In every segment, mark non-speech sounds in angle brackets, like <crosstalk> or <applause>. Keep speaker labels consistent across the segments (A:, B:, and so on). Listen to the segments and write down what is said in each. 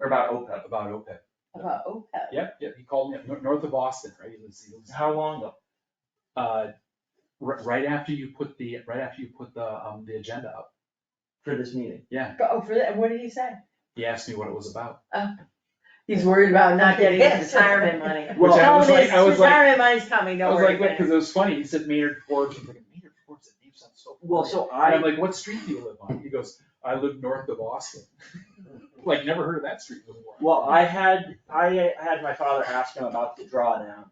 A: or about OPEB.
B: about OPEB.
C: about OPEB.
B: Yep, yep, he called me up, nor- north of Boston, right? He lives- he lives-
A: How long ago?
B: Uh, ri- right after you put the, right after you put the, um, the agenda up,
A: for this meeting?
C: But, oh, for that, what did he say?
B: he asked me what it was about.
C: He's worried about not getting his
D: Yes.
C: retirement <laughs> money.
B: Which I
C: Tell
B: was
C: him
B: like,
C: his
B: I was like,
C: Retirement money's coming,
B: I
C: don't
B: was
C: worry
B: like,
C: about
B: wait, cause
C: it.
B: it was funny, he said Maynard Forbes, I'm thinking, Maynard Forbes, that name sounds so.
A: Well,
B: familiar."
A: so
B: And I'm
A: I,
B: like, what street do you live on? He goes, I live north of Boston. <laughs> Like, never heard of that street before.
A: well, I had, I had my father ask him about the drawdown,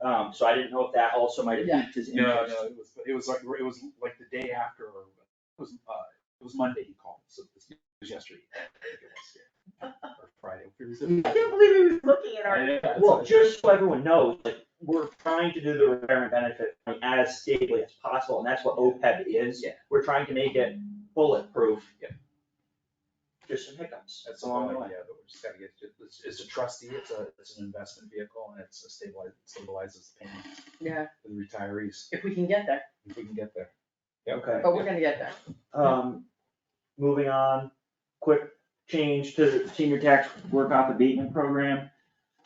B: Right.
A: um, so I didn't know if that also might have
C: Yeah.
A: piqued his
B: No,
A: interest.
B: no, it was, it was like, it was like the day after, or it was, uh, it was Monday he called, so this was yesterday. I think it was, yeah. Or Friday. it was-
D: I can't believe he was looking at
B: I
D: our.
B: know, that's
A: Well,
B: what-
A: just so everyone knows, like, we're trying to do the retirement benefit plan as stably as possible, and that's what OPEB is.
B: Yeah.
A: We're trying to make it bulletproof.
B: Yep.
A: Just some hiccups.
B: That's a
A: along
B: long
A: the
B: way,
A: way.
B: Oh, yeah, but we just gotta get, to- it's, it's a trustee, it's a, it's an investment vehicle, and it's a stabilize, stabilizes the payment
C: Yeah,
B: for the retirees,
C: if we can get there,
B: if we can get there.
A: Okay.
C: but we're gonna get there.
A: Um, moving on, quick change to the senior tax work off abatement program.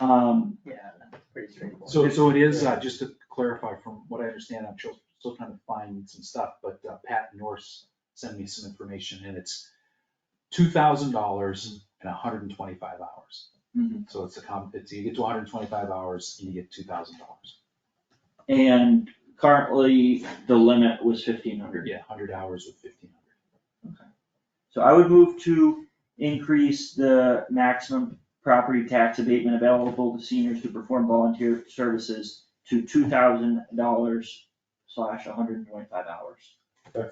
A: Um,
C: Yeah, that's pretty straightforward.
B: So, so it is, uh, just to clarify from what I understand, I'm still, still trying to find some stuff, but uh, Pat Norse sent me some information and it's two thousand dollars and hundred and twenty-five hours.
A: Mhm.
B: So it's a com, it's, you get to hundred and twenty-five hours and you get two thousand dollars.
A: and currently, the limit was fifteen hundred.
B: Yeah, hundred hours with fifteen hundred.
A: So I would move to increase the maximum property tax abatement available to seniors who perform volunteer services to two thousand dollars slash hundred and twenty-five hours.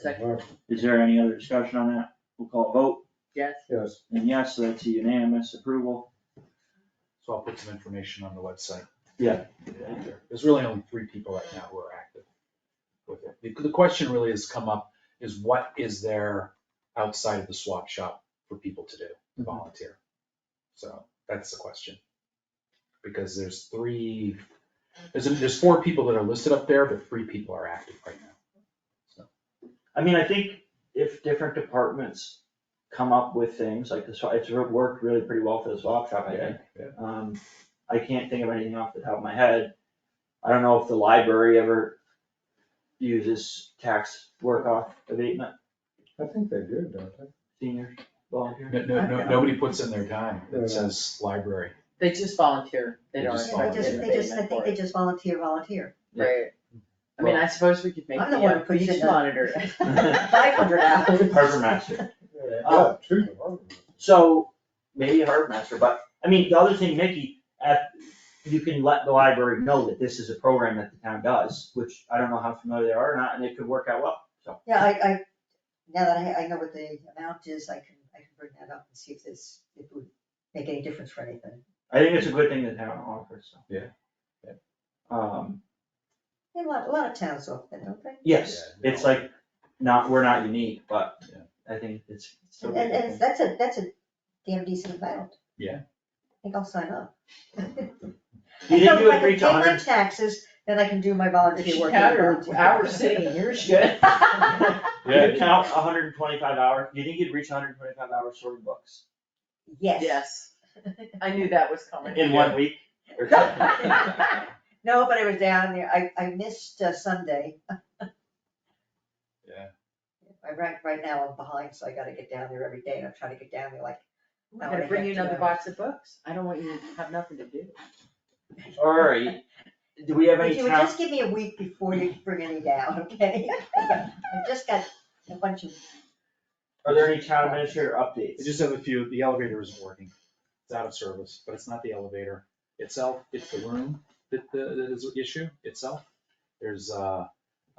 C: Second.
E: Mark,
A: Is there any other discussion on that? We'll call a vote,
C: Yes,
E: Yes,
A: and yes, so that's a unanimous approval.
B: So I'll put some information on the website.
A: Yeah.
B: There's really only three people right now who are active with it. The, the question really has come up is what is there outside of the swap shop for people to do, to volunteer? So that's the question. Because there's three, there's, there's four people that are listed up there, but three people are active right now.
A: I mean, I think if different departments come up with things like this, it's worked really pretty well for the swap shop, I think. Um, I can't think of anything off the top of my head. I don't know if the library ever uses tax work off abatement,
E: I think they do, don't they?
A: senior volunteer.
B: No, no, no, nobody puts in their time.
E: Yeah.
B: It says library.
C: they just volunteer, they
B: They
C: don't.
B: just
D: Yeah, They just, they just, I
C: abatement
D: think
C: for
D: they
C: it.
D: just volunteer, volunteer.
C: Right. I mean, I suppose we could make
D: I'm the
C: the
D: one
C: uh,
D: who
C: beach
D: did that.
C: monitor.
D: <laughs>
C: <laughs>
D: Five hundred hours.
A: Harbor master.
E: Yeah, two to one.
A: So maybe a harbor master, but I mean, the other thing, Mickey, at, you can let the library know that this is a program that the town does, which I don't know how familiar they are or not, and it could work out well, so.
D: Yeah, I, I, now that I, I know what the amount is, I can, I can bring that up and see if this, if it would make any difference for anything.
A: I think it's a good thing the town offers, so.
B: Yeah, yeah.
A: Um,
D: Yeah, A lot, a lot of towns offer that, don't they?
A: Yes,
B: Yeah,
A: it's
B: no.
A: like, not, we're not unique, but
B: Yeah.
A: I think it's. it's still
D: And,
A: a good
D: and it's-
A: thing.
D: that's a, that's a damn decent amount.
B: Yeah.
D: I think I'll sign up.
A: You
D: So
A: think
D: if
A: you
D: I can
A: agree to
D: pay my
A: hundred,
D: taxes, then I can do my
C: If
D: volunteer
C: she
D: work.
C: had her hours sitting in <laughs> here, she could.
A: you count hundred and twenty-five hours, you think you'd reach hundred and twenty-five hours sorting books
D: Yes.
C: Yes,
D: <laughs>
C: I knew that was coming.
A: in one week? or something?
D: No, but I was down there, I, I missed uh, Sunday.
B: Yeah.
D: I, right, right now I'm behind, so I gotta get down there every day, and I'm trying to get down there like,
C: <laughs> I'm gonna bring you another box of books. I don't want you to have nothing to do.
A: All right, do we have
D: if
A: any
D: you would
A: town,
D: just give me a week before you bring any down, okay? <laughs> I've just got a bunch of,
A: are there any town administrator
B: I
A: updates?
B: just have a few, the elevator isn't working, it's out of service, but it's not the elevator itself, it's the room that, the- that is the issue itself. There's, uh,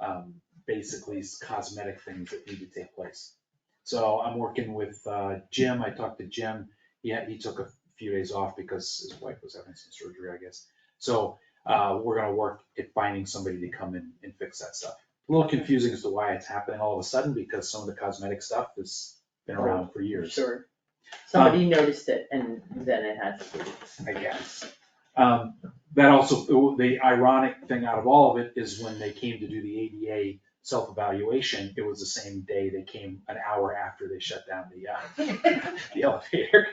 B: um, basically cosmetic things that need to take place. So I'm working with, uh, Jim, I talked to Jim, he had, he took a few days off because his wife was having some surgery, I guess. So, uh, we're gonna work at finding somebody to come in and fix that stuff. A little confusing as to why it's happening all of a sudden, because some of the cosmetic stuff has been around for years.
C: Sure. Somebody noticed it and then it had to be.
B: I guess. Um, that also, the ironic thing out of all of it is when they came to do the ADA self-evaluation, it was the same day, they came an hour after they shut down the, uh, the elevator.